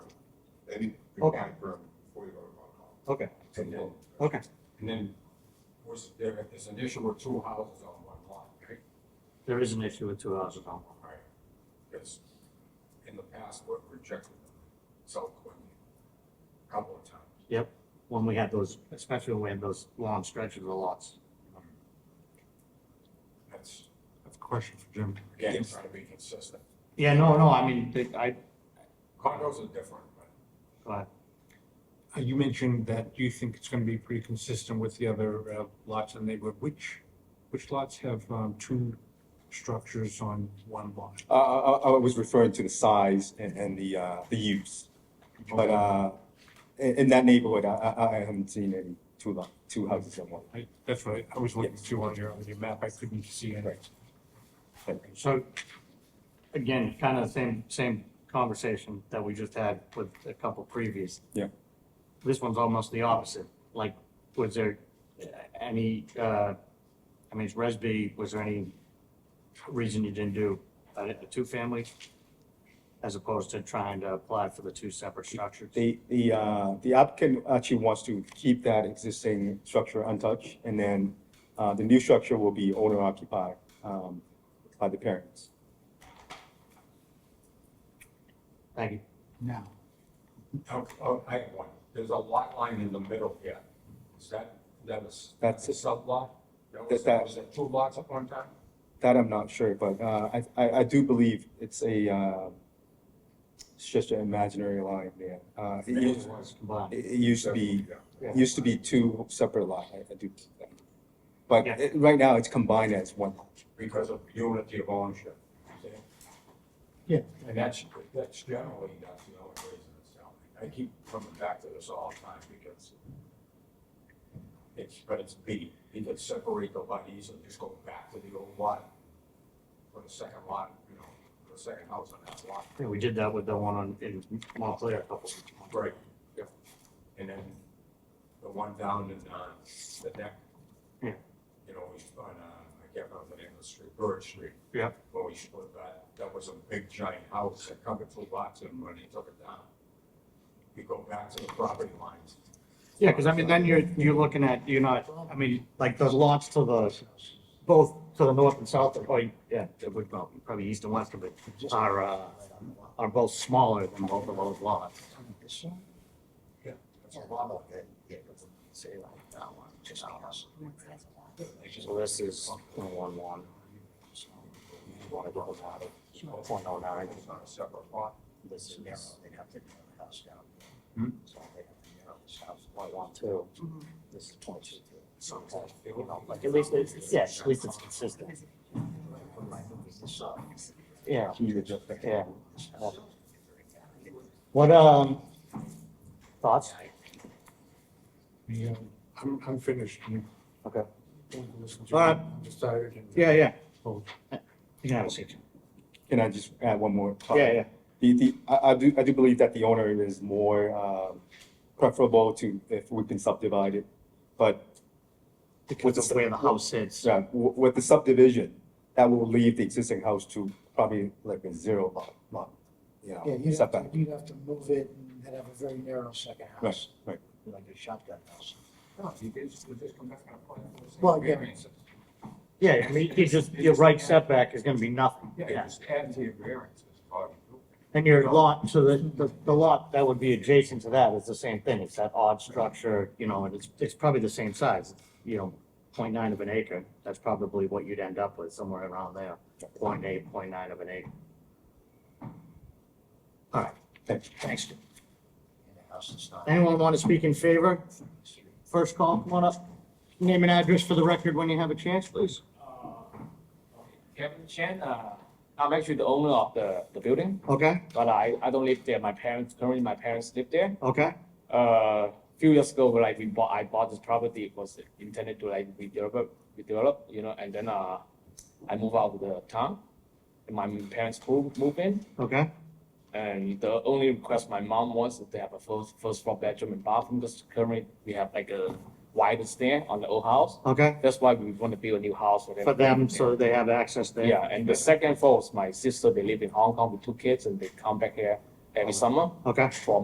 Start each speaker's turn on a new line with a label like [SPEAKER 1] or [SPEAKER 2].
[SPEAKER 1] your
[SPEAKER 2] Okay.
[SPEAKER 1] back room before you go to Concom.
[SPEAKER 2] Okay,
[SPEAKER 1] And then,
[SPEAKER 2] okay,
[SPEAKER 1] and then, was there, there's an issue with two houses on one lot, right?
[SPEAKER 3] There is an issue with two houses on one.
[SPEAKER 1] Right. Because in the past, we've rejected them subsequently, a couple of times.
[SPEAKER 3] Yep, when we had those, especially when we had those long stretches of lots.
[SPEAKER 1] That's,
[SPEAKER 4] That's a question for Jim.
[SPEAKER 1] again, trying to be consistent.
[SPEAKER 3] Yeah, no, no, I mean, they- I,
[SPEAKER 1] Condos are different, but
[SPEAKER 3] go ahead.
[SPEAKER 4] Uh, You mentioned that you think it's gonna be pretty consistent with the other uh, lots in the neighborhood. Which, which lots have um, two structures on one lot?
[SPEAKER 5] Uh, I, I- I was referring to the size and, and the, uh, the use. But, uh, in, in that neighborhood, I, I, I haven't seen any two lot, two houses in one.
[SPEAKER 4] I- That's what I- I was looking through on your, on your map. I couldn't see any.
[SPEAKER 5] Right.
[SPEAKER 3] So, again, kind of the same, same conversation that we just had with a couple previous.
[SPEAKER 5] Yeah.
[SPEAKER 3] This one's almost the opposite, like, was there any, uh, I mean, it's Resby, was there any reason you didn't do a, a two-family? As opposed to trying to apply for the two separate structures?
[SPEAKER 5] The, the, uh, the applicant actually wants to keep that existing structure untouched, and then, uh, the new structure will be owner occupied, um, by the parents.
[SPEAKER 3] Thank you.
[SPEAKER 4] Now.
[SPEAKER 1] Oh, oh, I have one. There's a lot line in the middle here. Is that, that is.
[SPEAKER 5] That's
[SPEAKER 1] a
[SPEAKER 5] it.
[SPEAKER 1] sub lot? That was,
[SPEAKER 5] That- that-
[SPEAKER 1] was it two lots at one time?
[SPEAKER 5] That I'm not sure, but, uh, I, I, I do believe it's a, uh, it's just an imaginary line there. Uh, it
[SPEAKER 1] Maybe
[SPEAKER 5] used,
[SPEAKER 1] it was.
[SPEAKER 3] Combined.
[SPEAKER 5] it it used to be
[SPEAKER 1] Yeah.
[SPEAKER 5] It used to be two separate lot, I, I do. think that. But
[SPEAKER 3] Yeah.
[SPEAKER 5] it- right now, it's combined as one. lot.
[SPEAKER 1] Because of unity of ownership. you see?
[SPEAKER 4] Yeah.
[SPEAKER 1] And that's, that's generally, that's the only reason it's down. I keep coming back to this all the time because it's, but it's B. You could separate the lot easily, just go back to the old lot for the second lot, you know, for the second house on that lot.
[SPEAKER 3] Yeah, we did that with the one on, in Montclair a couple of months.
[SPEAKER 1] Right. Yep. And then the one down in, uh, the neck.
[SPEAKER 3] Yeah.
[SPEAKER 1] You know, we, on, uh, I can't remember the name of the street, Bird Street.
[SPEAKER 3] Yep.
[SPEAKER 1] Where we split that, that was a big giant house that covered two lots and when they took it down. You go back to the property lines.
[SPEAKER 3] Yeah, because I mean, then you're, you're looking at, you're not, I mean, like the lots to the, both to the north and south, of- or, yeah, it would, well, probably east and west of it, are, uh, are both smaller than both of those lots.
[SPEAKER 1] That's a lot of it.
[SPEAKER 3] So this is one one one. One of those out of, point oh nine,
[SPEAKER 1] It's not a separate lot.
[SPEAKER 3] this is
[SPEAKER 6] They'd have to tear the house down.
[SPEAKER 3] Hmm?
[SPEAKER 6] So they'd have to tear this house.
[SPEAKER 3] point one two, this is point two two. So, you know, like, Mm-hmm. at
[SPEAKER 1] It
[SPEAKER 3] least it's, yes, at least it's consistent,
[SPEAKER 6] Put my movies this up.
[SPEAKER 3] yeah.
[SPEAKER 5] Can you adjust that?
[SPEAKER 3] uh, Yeah.
[SPEAKER 6] This house.
[SPEAKER 3] What, um, thoughts?
[SPEAKER 4] Yeah, I'm, I'm finished. You
[SPEAKER 3] Okay.
[SPEAKER 4] want to listen to
[SPEAKER 3] All
[SPEAKER 4] it?
[SPEAKER 3] right.
[SPEAKER 4] I'm just tired and-
[SPEAKER 3] yeah.
[SPEAKER 4] Oh,
[SPEAKER 3] You can have a seat.
[SPEAKER 5] Can I just add one more? thought?
[SPEAKER 3] Yeah, yeah.
[SPEAKER 5] The, the, I, I do, I do believe that the owner is more, um, preferable to if we can subdivide it. But
[SPEAKER 3] Because of where the house sits.
[SPEAKER 5] uh, w- with the subdivision, that will leave the existing house to probably like a zero lot, lot, you
[SPEAKER 6] Yeah,
[SPEAKER 5] know,
[SPEAKER 6] you'd have, to-
[SPEAKER 5] setback.
[SPEAKER 6] you'd have to move it and then have a very narrow second house,
[SPEAKER 5] Right,
[SPEAKER 6] like a shotgun house.
[SPEAKER 1] No, you just, you just come back and apply for the same
[SPEAKER 6] Well, yeah.
[SPEAKER 1] variances.
[SPEAKER 3] Yeah, I mean, you just, your right setback is gonna be nothing.
[SPEAKER 1] Yeah, you just add to your variances, Bobby.
[SPEAKER 3] And your lot, so the, the, the lot that would be adjacent to that is the same thing. It's that odd structure, you know, and it's, it's probably the same size, you know, point nine of an acre. That's probably what you'd end up with, somewhere around there, point eight, point nine of an acre. All right,
[SPEAKER 5] Thank you.
[SPEAKER 3] thanks. Jim.
[SPEAKER 6] And the house is not.
[SPEAKER 3] Anyone want to speak in favor? First call, come on up. Name and address for the record when you have a chance, please.
[SPEAKER 7] Kevin Chen, uh, I'm actually the owner of the, the building,
[SPEAKER 3] Okay,
[SPEAKER 7] but I, I don't live there. My parents, currently my parents live there.
[SPEAKER 3] okay,
[SPEAKER 7] Uh, few years ago, like we bought, I bought this property, it was intended to like redevelop, redevelop, you know, and then, uh, I moved out of the town. And my parents moved, moved in,
[SPEAKER 3] okay.
[SPEAKER 7] and the only request my mom wants is to have a first, first floor bedroom and bathroom, because currently we have like a wider stair on the old house.
[SPEAKER 3] Okay,
[SPEAKER 7] That's why we want to build a new house for them.
[SPEAKER 3] for them, so they have access there.
[SPEAKER 7] Yeah, and the second floor is my sister, they live in Hong Kong with two kids and they come back here every summer
[SPEAKER 3] Okay.
[SPEAKER 7] for